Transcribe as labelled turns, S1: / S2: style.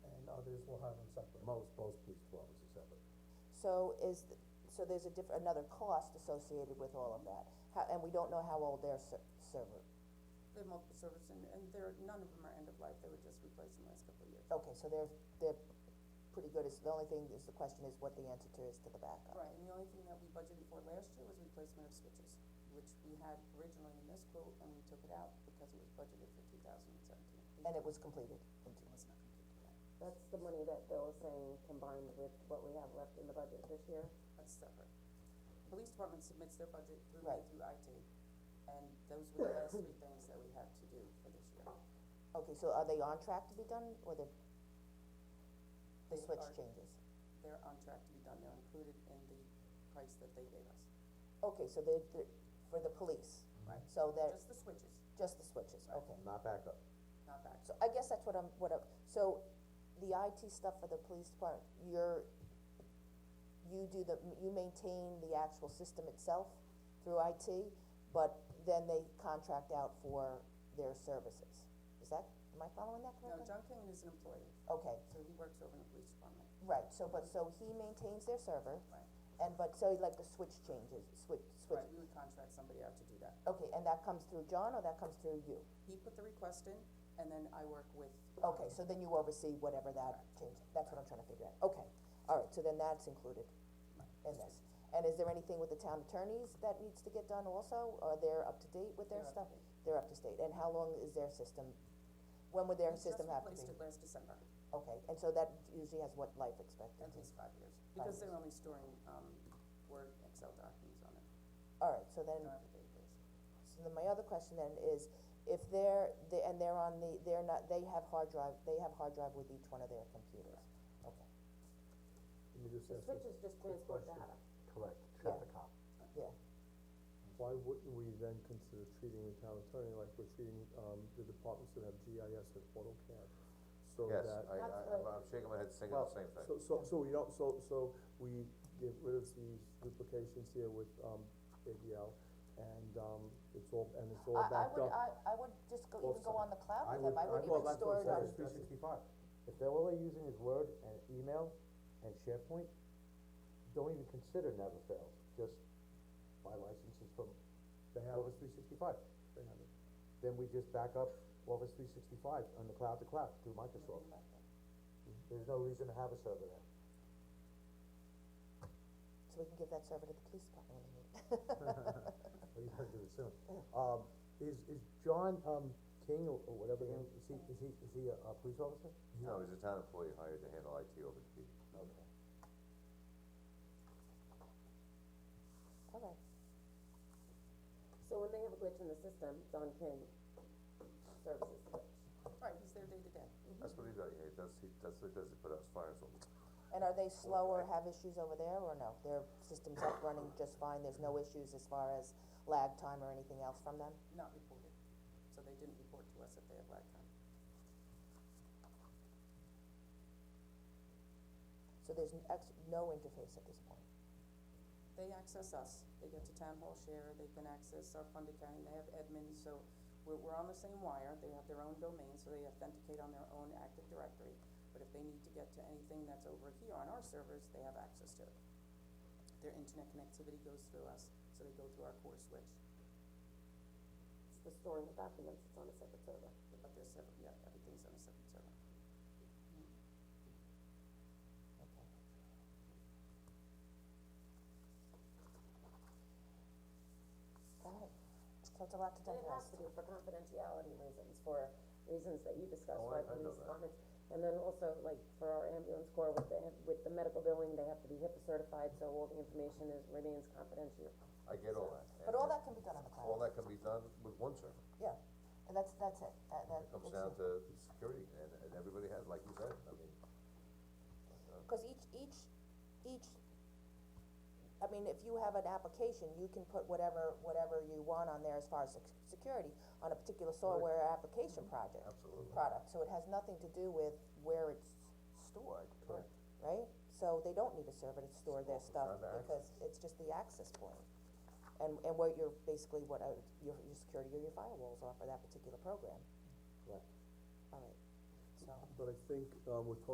S1: officers will have them separate.
S2: Most, most police departments are separate.
S3: So is, th- so there's a diff, another cost associated with all of that, how, and we don't know how old their ser- server,
S4: They have multiple servers and, and they're, none of them are end of life, they were just replaced in the last couple of years.
S3: okay, so they're, they're pretty good, it's, the only thing is, the question is what the answer is to the backup.
S4: Right, and the only thing that we budgeted for last year was replacement of switches, which we had originally in this quote and we took it out because it was budgeted for two thousand and seventeen.
S3: And it was completed, in two-
S4: was not completed yet,
S5: That's the money that Bill is saying combined with what we have left in the budget this year.
S4: that's separate. Police department submits their budget through,
S3: Right.
S4: through IT, and those were the last three things that we had to do for this year.
S3: okay, so are they on track to be done, or the, the
S4: They
S3: switch
S4: are-
S3: changes?
S4: They're on track to be done, they're included in the price that they gave us,
S3: Okay, so they're, they're, for the police,
S4: right?
S3: so they're,
S4: Just the switches,
S3: just the switches,
S4: Right.
S3: okay.
S2: Not backup.
S4: not back.
S3: So I guess that's what I'm, what I'm, so the IT stuff for the police department, you're, you do the, you maintain the actual system itself through IT, but then they contract out for their services. Is that, am I following that
S4: No,
S3: correctly?
S4: John Kingan is an employee,
S3: Okay,
S4: so he works over in the police department.
S3: right, so, but, so he maintains their server,
S4: Right.
S3: and, but, so like the switch changes, switch, switch,
S4: Right, we would contract somebody out to do that.
S3: okay, and that comes through John, or that comes through you?
S4: He put the request in, and then I work with,
S3: Okay, so then you oversee whatever that change, that's what I'm trying to figure out, okay, alright, so then that's included in this. And is there anything with the town attorneys that needs to get done also, are they up to date with their
S4: They're up
S3: stuff? They're up to date, and how long is their system, when would their
S4: we just
S3: system have to
S4: replaced
S3: be?
S4: it last December,
S3: Okay, and so that usually has what life
S4: at
S3: expectancy?
S4: least five years,
S3: Five
S4: because they're only storing, um, Word, Excel documents on it,
S3: Alright, so
S4: they
S3: then,
S4: don't have a database.
S3: so then my other question then is, if they're, they, and they're on the, they're not, they have hard drive, they have hard drive with each one of their computers, okay,
S2: Let me just ask you
S5: Switches just
S2: a quick
S5: transport
S2: question.
S5: data.
S2: Correct, traffic cop.
S3: yeah.
S6: Why wouldn't we then consider treating the town attorney like we're treating, um, the departments that have GIS and AutoCAD? So
S7: Yes,
S6: that,
S7: I, I, I'm- I'm shaking my head, saying
S6: Well,
S7: the same thing.
S6: so, so, so we don't, so, so we get rid of these duplications here with, um, ADL, and, um, it's all, and it's all
S3: I, I
S6: backed
S3: would,
S6: up.
S3: I, I would just go, even go on
S6: Offsite.
S3: the cloud
S2: I
S3: with them,
S2: would-
S3: I
S2: I-
S3: wouldn't
S2: well,
S3: even
S2: that's what
S3: store
S2: I'm
S3: it
S2: saying,
S3: on,
S2: it's 365. If they're all they're using is Word and email and SharePoint, don't even consider never fails, just buy licenses from
S6: They have,
S2: Office three sixty-five.
S6: they have it.
S2: Then we just back up Office three sixty-five on the cloud to cloud through Microsoft. There's no reason to have a server there.
S3: so we can give that server to the police department. when they need it.
S2: Well, you gotta do it soon. Um, is, is John, um, King or or whatever, his name- is he, is he, is he a, a police officer?
S7: No, he's a town employee hired to handle IT over the PD.
S3: Mm-hmm.
S2: Okay.
S3: Alright,
S5: So when they have a glitch in the system, Don King services the glitch.
S4: Right, he's there day to day.
S7: That's what he does, he does, he, that's what he does, he put out fires on.
S3: and are they slow or have issues over there, or no, their system's up running just fine, there's no issues as far as lag time or anything else from them?
S4: not reported, so they didn't report to us that they had lag time.
S3: So there's n- ex- no interface at this point,
S4: They access us, they get to town hall share, they can access our fund accounting, they have admin, so we're, we're on the same wire, they have their own domain, so they authenticate on their own Active Directory. But if they need to get to anything that's over here on our servers, they have access to it. Their internet connectivity goes through us, so they go through our core switch,
S5: It's the storing of documents, it's on a separate server.
S4: but they're separate, yeah, everything's on a separate server.
S3: okay. Alright, so it's a lot to
S5: And it has
S3: digest,
S5: to be for confidentiality reasons, for reasons that you discussed,
S7: Oh,
S5: why
S7: I- I know
S5: police
S7: that.
S5: departments. And then also, like, for our ambulance corps, with the, with the medical billing, they have to be HIPAA certified, so all the information is, remains confidential.
S7: I get all that.
S3: but all that can be done on the
S7: All
S3: cloud,
S7: that can be done with one server,
S3: yeah, and that's, that's it, that, that,
S7: it comes
S3: it's
S7: down
S3: it.
S7: to security, and, and everybody has, like you said, I mean,
S3: Cause each, each, each, I mean, if you have an application, you can put whatever, whatever you want on there as far as sec- security on a particular software application project.
S7: Absolutely.
S3: Product, so it has nothing to do with where it's stored.
S7: Correct.
S3: Right? So they don't need a server to store their stuff
S7: not the
S3: because it's just the access point. And, and what you're, basically what, uh, your, your security or your firewalls are for that particular program.
S2: Correct.
S3: Alright, so.
S6: But I think, um, with